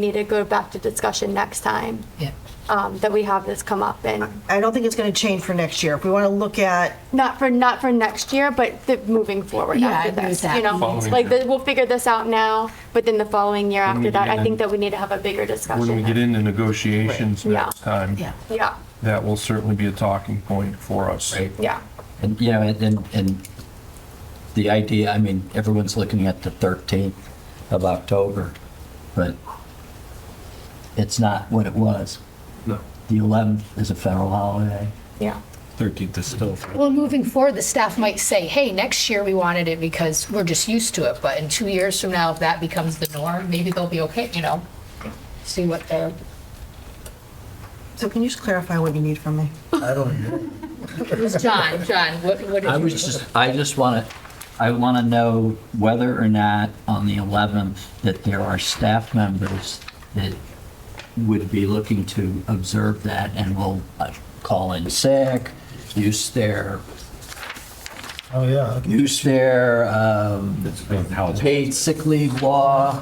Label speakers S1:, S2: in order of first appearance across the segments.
S1: we need to go back to discussion next time
S2: Yeah.
S1: um, that we have this come up and
S3: I don't think it's going to change for next year. If we want to look at,
S1: not for, not for next year, but the, moving forward
S2: Yeah, I
S1: after
S2: agree with
S1: this,
S2: that.
S1: you know?
S4: Following
S1: Like,
S4: year.
S1: the- we'll figure this out now, but then the following year
S4: When we
S1: after that,
S4: get
S1: I think
S4: in-
S1: that we need to have a bigger discussion.
S4: When we get into negotiations
S1: Right.
S4: next
S1: Yeah.
S4: time,
S2: Yeah.
S1: Yeah,
S4: that will certainly be a talking point for us.
S1: yeah.
S5: And, you know, and- and, and the idea, I mean, everyone's looking at the 13th of October, but it's not what it was.
S4: No.
S5: The 11th is a federal holiday.
S1: Yeah.
S5: 13th is still.
S2: Well, moving forward, the staff might say, hey, next year we wanted it because we're just used to it, but in two years from now, if that becomes the norm, maybe they'll be okay, you know? See what they're,
S3: so can you just clarify what you need from me?
S5: I don't know.
S2: it was John, John, what, what did you?
S5: I was just, I just want to, I want to know whether or not on the 11th that there are staff members that would be looking to observe that and will uh, call in sick, use their,
S6: Oh, yeah.
S5: use their um, paid sick leave law,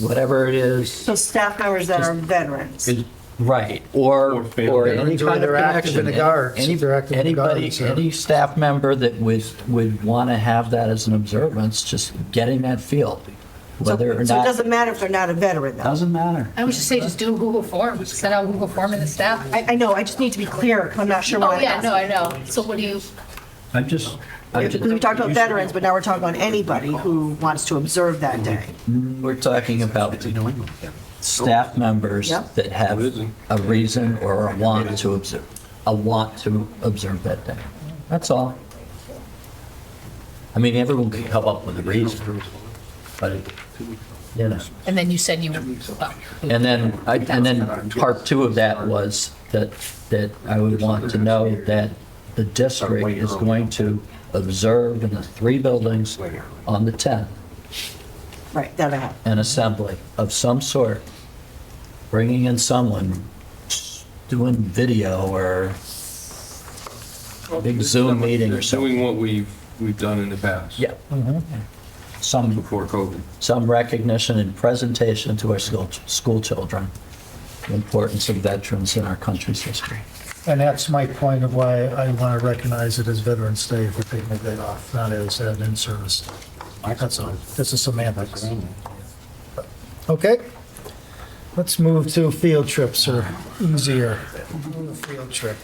S5: whatever it is.
S3: So staff members that are veterans.
S5: Right, or,
S4: fail.
S5: or any
S6: They're-
S5: kind of
S6: they're active
S5: connection.
S6: in the Guards.
S5: Any-
S6: They're active in the
S5: Anybody,
S6: Guards, yeah.
S5: any staff member that was, would want to have that as an observance, just getting that feel,
S3: So
S5: whether
S3: so
S5: or
S3: it
S5: not,
S3: doesn't matter if they're not a veteran though.
S5: doesn't matter.
S2: I would just say, just do a Google form, send out a Google form to the staff.
S3: I, I know, I just need to be clear 'cause I'm not sure what
S2: Oh,
S3: I'm
S2: yeah, no,
S3: asking.
S2: I know. So what do you,
S5: I'm just, I'm just.
S3: We talked about veterans, but now we're talking about anybody who wants to observe that day.
S5: Mm-hmm. We're talking about staff members
S3: Yep.
S5: that have a reason or a want to observe, a want to observe that day. That's all. I mean, everyone can come up with a reason, but, it- you know.
S2: and then you said you, well,
S5: And then, I- and then part two of that was that, that I would want to know that the district is going to observe in the three buildings on the 10th,
S3: Right, that I have.
S5: an assembly of some sort, bringing in someone, doing video or big Zoom meeting or something.
S4: Doing what we've, we've done in the past.
S5: Yeah. Some,
S4: Before COVID.
S5: some recognition and presentation to our school, school children, the importance of veterans in our country's history.
S6: And that's my point of why I want to recognize it as Veterans Day if we're taking the day off, not as an in-service. That's all. This is semantics. Okay. Let's move to field trips or easier. Field trip.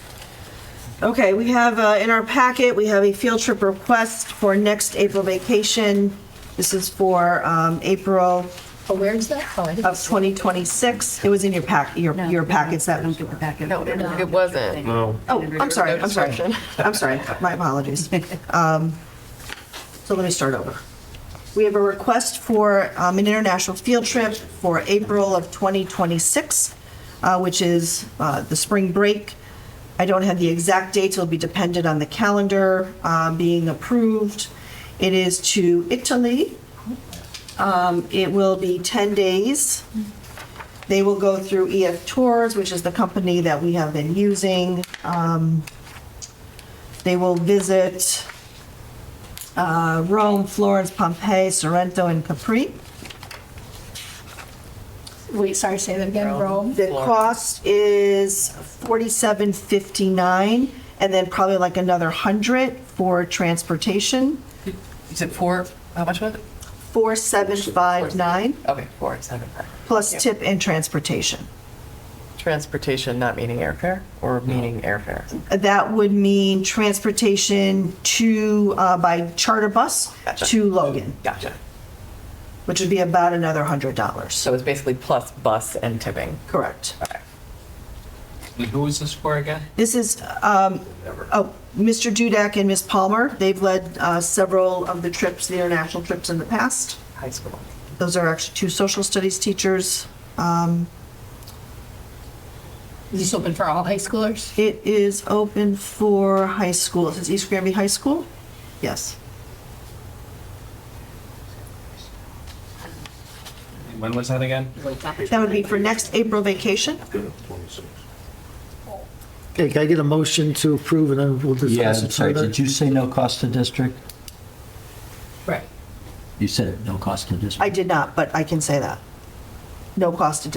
S3: Okay, we have, uh, in our packet, we have a field trip request for next April vacation. This is for um, April
S2: oh, where is that? Oh, I didn't
S3: of
S2: see
S3: 2026. It was in your pack, your your packets that.
S7: No, it wasn't.
S4: No.
S3: Oh, I'm sorry, I'm sorry. I'm sorry, my apologies. Um, So let me start over. We have a request for um, an international field trip for April of 2026, uh, which is uh, the spring break. I don't have the exact dates, it'll be dependent on the calendar uh, being approved. It is to Italy. Um, It will be 10 days. They will go through EF Tours, which is the company that we have been using. Um, They will visit uh, Rome, Florence, Pompeii, Sorrento, and Capri.
S2: it. Wait, sorry, say that again, Rome?
S3: The cost is forty-seven fifty-nine, and then probably like another hundred for transportation,
S7: Is it four, how much was it?
S3: four seven five nine,
S7: Okay, four, seven.
S3: plus tip and transportation.
S7: Transportation, not meaning airfare, or meaning airfare?
S3: That would mean transportation to, uh, by charter bus
S7: Gotcha.
S3: to Logan,
S7: Gotcha.
S3: which would be about another hundred dollars.
S7: So it's basically plus bus and tipping.
S3: Correct.
S8: Who is this for again?
S3: This is, um, oh, Mr. Dudek and Ms. Palmer, they've led uh, several of the trips, the international trips in the past.
S7: High school.
S3: Those are actually two social studies teachers. Um,
S2: Is this open for all high schoolers?
S3: It is open for high school. Is it East Granby High School? Yes.
S8: When was that again?
S3: That would be for next April vacation.
S6: Okay, can I get a motion to approve and then we'll
S5: Yeah,
S6: discuss
S5: I'm
S6: it
S5: sorry,
S6: further?
S5: did you say no cost to district?
S2: Right.
S5: You said no cost to district.
S3: I did not, but I can say that. No cost to